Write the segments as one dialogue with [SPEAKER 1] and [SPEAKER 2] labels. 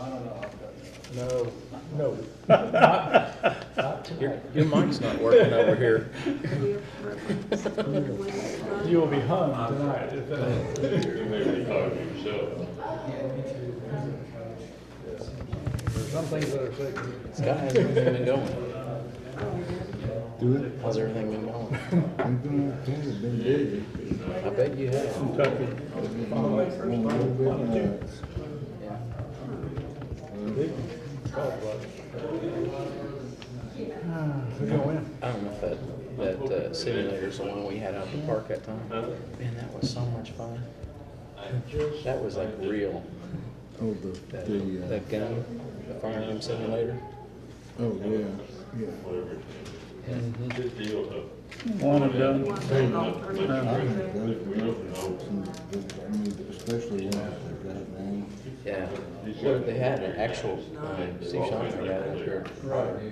[SPEAKER 1] I don't know, I've got you.
[SPEAKER 2] No, no. Not- not
[SPEAKER 3] Your,
[SPEAKER 2] tonight.
[SPEAKER 3] your mic's not working over here.
[SPEAKER 2] You will be hung tonight. if that-
[SPEAKER 4] You may be talking to yourself.
[SPEAKER 1] There's some things that are sacred.
[SPEAKER 3] Scott, how's everything been going?
[SPEAKER 5] Do it.
[SPEAKER 3] How's everything been going?
[SPEAKER 5] I'm doing okay. I've been busy.
[SPEAKER 3] I bet you have.
[SPEAKER 2] Kentucky.
[SPEAKER 5] I've been on a little bit nuts.
[SPEAKER 3] Yeah.
[SPEAKER 2] We're gonna win.
[SPEAKER 3] I don't know if that, that uh, simulator's the one we had out at the park that time. Man, that was so much fun. That was like real.
[SPEAKER 5] Oh, the,
[SPEAKER 3] That,
[SPEAKER 5] the, uh,
[SPEAKER 3] that gun, the firearm simulator.
[SPEAKER 5] oh, yeah, yeah.
[SPEAKER 2] One and done.
[SPEAKER 5] I think those are some good- I mean, especially ones that got now.
[SPEAKER 3] Yeah. Well, they had an actual, um, Steve Shonner got it up here. Right.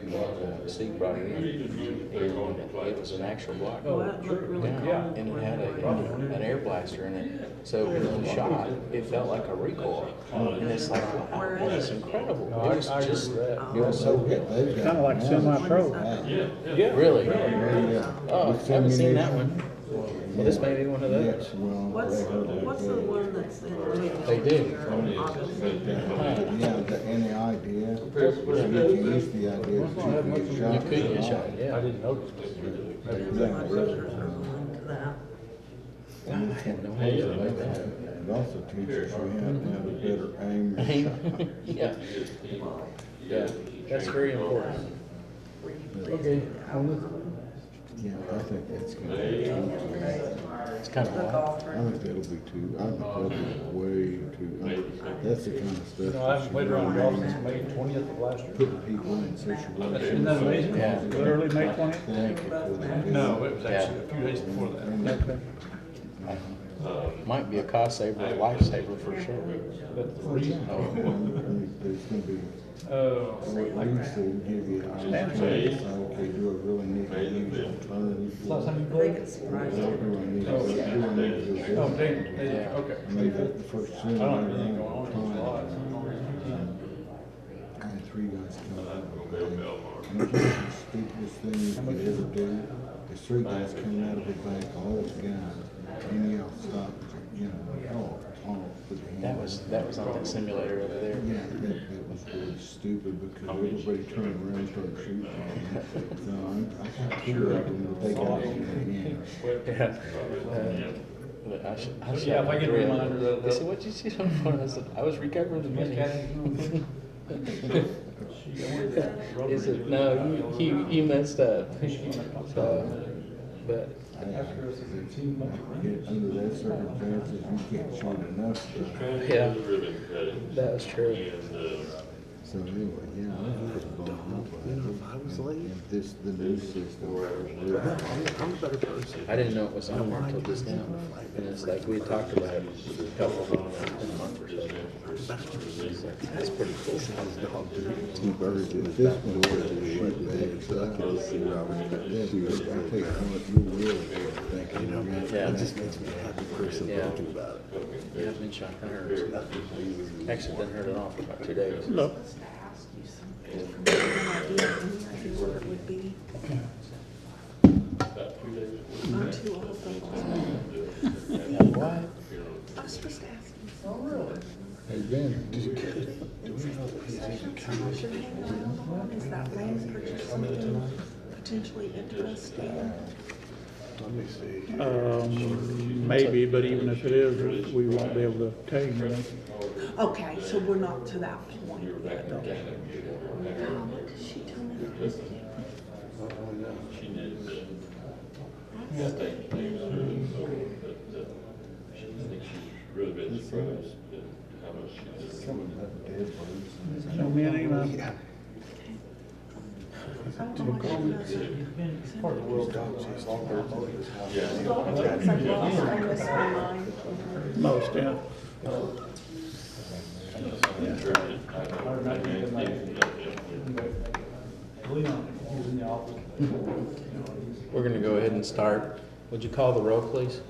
[SPEAKER 3] Steve brought it in. And It was an actual block. Yeah, and it had a, an air blaster in it, so when you shot, it felt like a recoil, and it's like, wow, that is incredible. It was
[SPEAKER 2] I agree
[SPEAKER 3] just,
[SPEAKER 2] with that.
[SPEAKER 5] Yeah, so good. They've got.
[SPEAKER 2] Kinda like
[SPEAKER 5] now.
[SPEAKER 2] semi-pro.
[SPEAKER 5] Wow.
[SPEAKER 3] really,
[SPEAKER 5] Yeah.
[SPEAKER 3] oh,
[SPEAKER 5] With
[SPEAKER 3] haven't seen that
[SPEAKER 5] ammunition.
[SPEAKER 3] one. Well, this may be one of those.
[SPEAKER 5] Yes, well.
[SPEAKER 6] What's,
[SPEAKER 5] they heard that
[SPEAKER 6] what's the
[SPEAKER 5] good.
[SPEAKER 6] one that's in?
[SPEAKER 3] They do.
[SPEAKER 5] Yeah, the, and the idea, you get used to the idea that you could get shot.
[SPEAKER 3] You could get shot,
[SPEAKER 2] I
[SPEAKER 3] yeah.
[SPEAKER 2] didn't notice.
[SPEAKER 3] I had no idea about that.
[SPEAKER 5] It also teaches you how to have a better aim. and shot.
[SPEAKER 3] Yeah, yeah, that's very important.
[SPEAKER 2] Okay.
[SPEAKER 5] Yeah, I think that's gonna be, too.
[SPEAKER 3] It's kind of wild.
[SPEAKER 5] I
[SPEAKER 6] golfer.
[SPEAKER 5] think that'll be too, I think that'll be way too, I mean, that's the kind of stuff.
[SPEAKER 2] You know, I haven't
[SPEAKER 5] should
[SPEAKER 2] played around golf since
[SPEAKER 5] really
[SPEAKER 2] May twentieth of last year.
[SPEAKER 5] Put people in situations.
[SPEAKER 2] Isn't that amazing?
[SPEAKER 3] Yeah.
[SPEAKER 2] Literally May twentieth?
[SPEAKER 5] Thank you for that.
[SPEAKER 2] No, it was actually a few days before that.
[SPEAKER 5] Okay.
[SPEAKER 3] Might be a cost saver, a lifesaver for sure.
[SPEAKER 2] But
[SPEAKER 5] Oh,
[SPEAKER 2] the reason,
[SPEAKER 5] There's gonna be,
[SPEAKER 2] oh,
[SPEAKER 5] well, at least they'll give you an opportunity, to say, okay, do I really need to use alternative?
[SPEAKER 2] last time you
[SPEAKER 6] I think
[SPEAKER 2] played?
[SPEAKER 6] it's
[SPEAKER 5] Do I
[SPEAKER 6] Friday.
[SPEAKER 5] need to, do I need to? do
[SPEAKER 2] Oh,
[SPEAKER 5] this?
[SPEAKER 2] dang, they-
[SPEAKER 3] Yeah.
[SPEAKER 2] okay.
[SPEAKER 5] I mean, the first
[SPEAKER 2] I
[SPEAKER 5] sooner
[SPEAKER 2] don't
[SPEAKER 5] or
[SPEAKER 2] have anything going on,
[SPEAKER 5] later,
[SPEAKER 2] it's a lot.
[SPEAKER 5] time, I had three guys come out. of a bank. And it was the stupidest thing you could ever do. There's three guys coming out of the bank, all those guys, and they all stopped, you know, all talk with the
[SPEAKER 3] That
[SPEAKER 5] hand.
[SPEAKER 3] was, that was on that simulator over there.
[SPEAKER 5] Yeah, that, that was really stupid because everybody turned around and started shooting. So I'm, I got two of them, but they got all in the hand.
[SPEAKER 3] Yeah. But I should, I should.
[SPEAKER 2] Yeah, if I get a reminder that-
[SPEAKER 3] They said, what'd you see on the phone? I said, I was recovering the money. He said, no, you, you, you messed up. So, but,
[SPEAKER 5] I- I- I- Under that circumstances, you can't shoot enough. but-
[SPEAKER 3] yeah, that was true.
[SPEAKER 5] So anyway, yeah. I'm pretty bummed out by it.
[SPEAKER 7] If I was late,
[SPEAKER 5] And This, the new system.
[SPEAKER 7] I'm, I'm a better person.
[SPEAKER 3] I didn't know it was on there until just now. And it's like, we had talked about it a couple of months or so. That's pretty cool.
[SPEAKER 5] Two birds in this one. Shoot back, so I can see where I was. Then shoot, I take one, you will, thinking, you know,
[SPEAKER 3] Yeah,
[SPEAKER 7] It just makes me a happy person
[SPEAKER 3] Yeah.
[SPEAKER 7] thinking about it.
[SPEAKER 3] yeah, I've been shot and hurt. Actually, been hurt at all for about two days.
[SPEAKER 7] No.
[SPEAKER 6] What it would be. I'm too old for that.
[SPEAKER 3] Yeah, what?
[SPEAKER 6] I was just asking.
[SPEAKER 5] Hey, Ben, did you-
[SPEAKER 6] Is your name on it? Is that land purchase something potentially interesting?
[SPEAKER 7] Let me see.
[SPEAKER 2] Um, maybe, but even if it is, we won't be able to tell you. you know.
[SPEAKER 6] Okay, so we're not to that point yet. How much is she telling you?
[SPEAKER 4] Really been surprised at how much she did.
[SPEAKER 2] Show me an email.
[SPEAKER 6] I don't know what she does.
[SPEAKER 2] Part of the world, it's all their
[SPEAKER 6] It's like lost, I miss her mind.
[SPEAKER 2] Most, yeah.
[SPEAKER 3] We're gonna go ahead and start. Would you call the roll, please?